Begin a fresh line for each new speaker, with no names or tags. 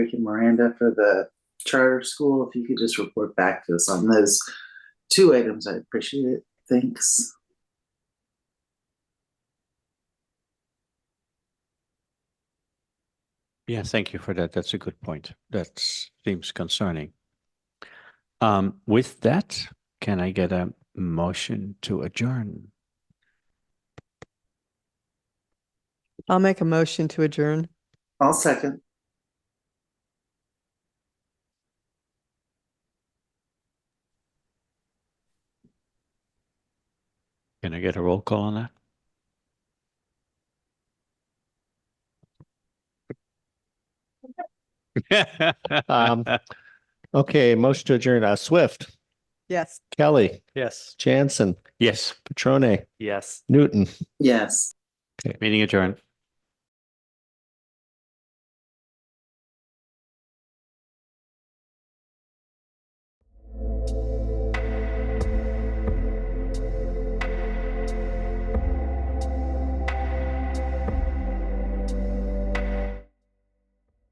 Rick and Miranda for the charter school, if you could just report back to us on those two items, I'd appreciate it. Thanks.
Yeah, thank you for that. That's a good point. That seems concerning. Um, with that, can I get a motion to adjourn?
I'll make a motion to adjourn.
I'll second.
Can I get a roll call on that?
Um, Okay, motion to adjourn. Uh, Swift,
Yes.
Kelly,
Yes.
Jansen,
Yes,
Petrone,
Yes.
Newton.
Yes.
meeting adjourned.